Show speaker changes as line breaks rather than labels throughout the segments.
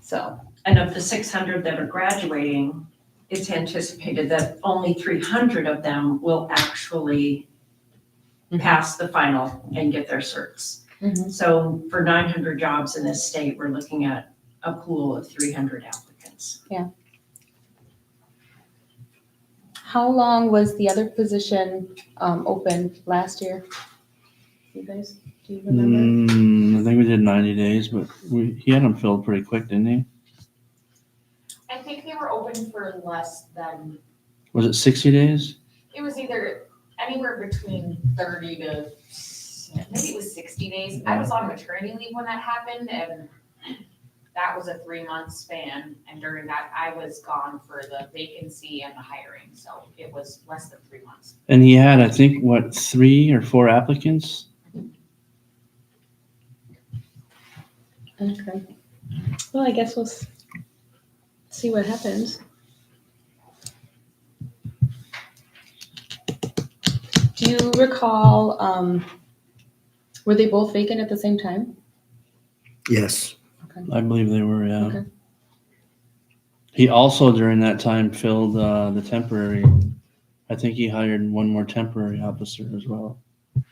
So, and of the six hundred that are graduating, it's anticipated that only three hundred of them will actually pass the final and get their certs.
Mhm.
So for nine hundred jobs in this state, we're looking at a pool of three hundred applicants.
How long was the other position um, open last year? You guys, do you remember?
Mm, I think we did 90 days, but we, he had them filled pretty quick, didn't he?
I think they were open for less than,
Was it 60 days?
it was either anywhere between thirty to, maybe it was sixty days. I was on maternity leave when that happened and that was a three-month span. And during that, I was gone for the vacancy and the hiring, so it was less than three months.
And he had, I think, what, three or four applicants?
Mm. Okay. Well, I guess we'll s- see what happens. Do you recall, um, were they both vacant at the same time?
Yes.
I believe they were, yeah.
Okay.
He also, during that time, filled uh, the temporary. I think he hired one more temporary officer as well. If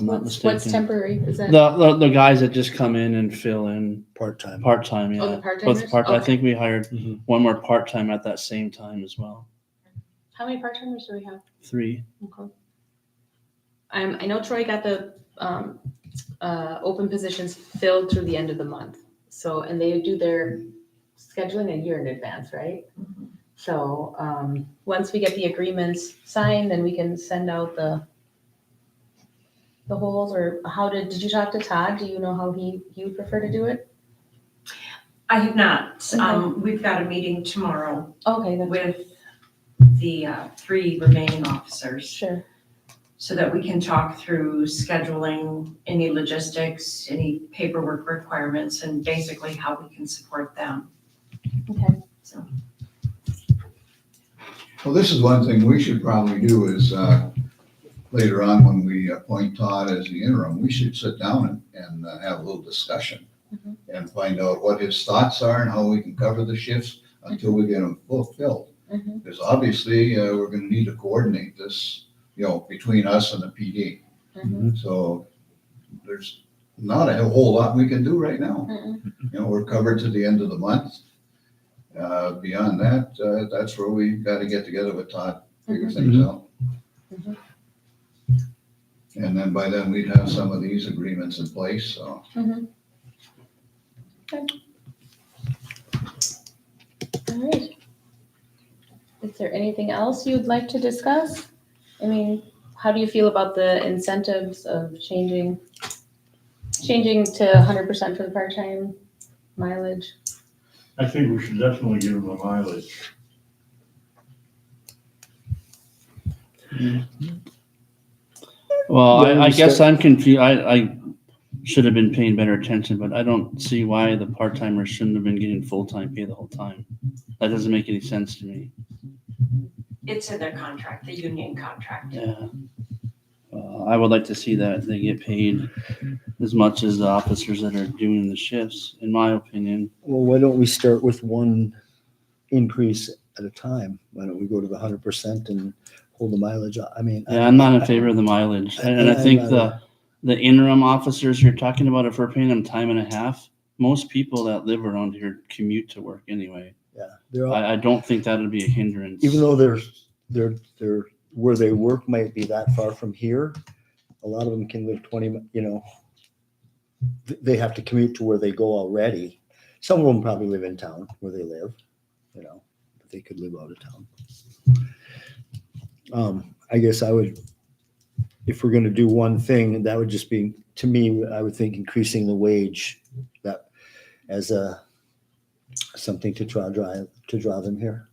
I'm not
What's- What's
mistaken.
temporary? Is that?
The, the, the guys that just come in and fill in.
Part-time.
Part time, yeah.
Oh, the part-timers?
Both part. I
Okay.
think we hired
Mhm.
one more part time at that same time as well.
How many part-timers do we have?
Three.
Okay. Um, I know Troy got the, um, uh, open positions filled through the end of the month. So, and they do their scheduling a year in advance, right? So, um, once we get the agreements signed, then we can send out the, the holes or how did, did you talk to Todd? Do you know how he, he would prefer to do it?
I have not, um, we've got a meeting tomorrow
Okay, then,
with the uh, three remaining officers
sure.
so that we can talk through scheduling, any logistics, any paperwork requirements, and basically how we can support them.
Okay.
So,
Well, this is one thing we should probably do is, uh, later on when we appoint Todd as the interim, we should sit down and, and uh, have a little discussion
Mhm.
and find out what his thoughts are and how we can cover the shifts until we get them fulfilled.
Mhm.
Because obviously, uh, we're gonna need to coordinate this, you know, between us and the PD.
Mhm.
So there's not a whole lot we can do right now.
Mm-mm.
You know, we're covered to the end of the month. Uh, Beyond that, uh, that's where we got to get together with Todd, figure things
Mhm.
out.
Mhm.
And then by then, we'd have some of these agreements in place, so.
All right. Is there anything else you'd like to discuss? I mean, how do you feel about the incentives of changing, changing to hundred percent for the part-time mileage?
I think we should definitely give them a mileage.
Well,
Yeah,
I, I
we
guess
said-
I'm confused. I, I should have been paying better attention, but I don't see why the part timers shouldn't have been getting full time pay the whole time. That doesn't make any sense to me.
It's in their contract, the union contract.
Yeah. Uh, I would like to see that they get paid as much as the officers that are doing the shifts, in my opinion.
Well, why don't we start with one increase at a time? Why don't we go to the hundred percent and hold the mileage? I mean.
Yeah, I'm not in favor of the mileage. And and I think the, the interim officers you're talking about, if we're paying them time and a half, most people that live around here commute to work anyway.
Yeah, they're all,
I, I don't think that'd be a hindrance.
even though they're, they're, they're, where they work might be that far from here. A lot of them can live twenty, mi- you know, th- they have to commute to where they go already. Some of them probably live in town where they live, you know, but they could live out of town. Um, I guess I would, if we're gonna do one thing, that would just be, to me, I would think increasing the wage that as a something to try, drive, to draw them here.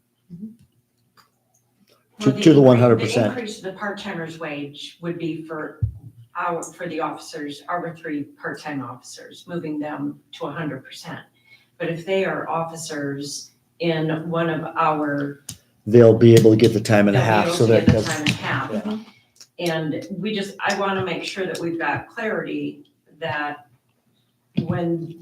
To-
Well,
to the
incre-
100%.
The increase of the part-timer's wage would be for our, for the officers, our three part-time officers, moving them to hundred percent. But if they are officers in one of our
they'll be able to get the time and a
They'll be
half
able
so
to
that,
get the time and a half. And we just, I want to make sure that we've got clarity that when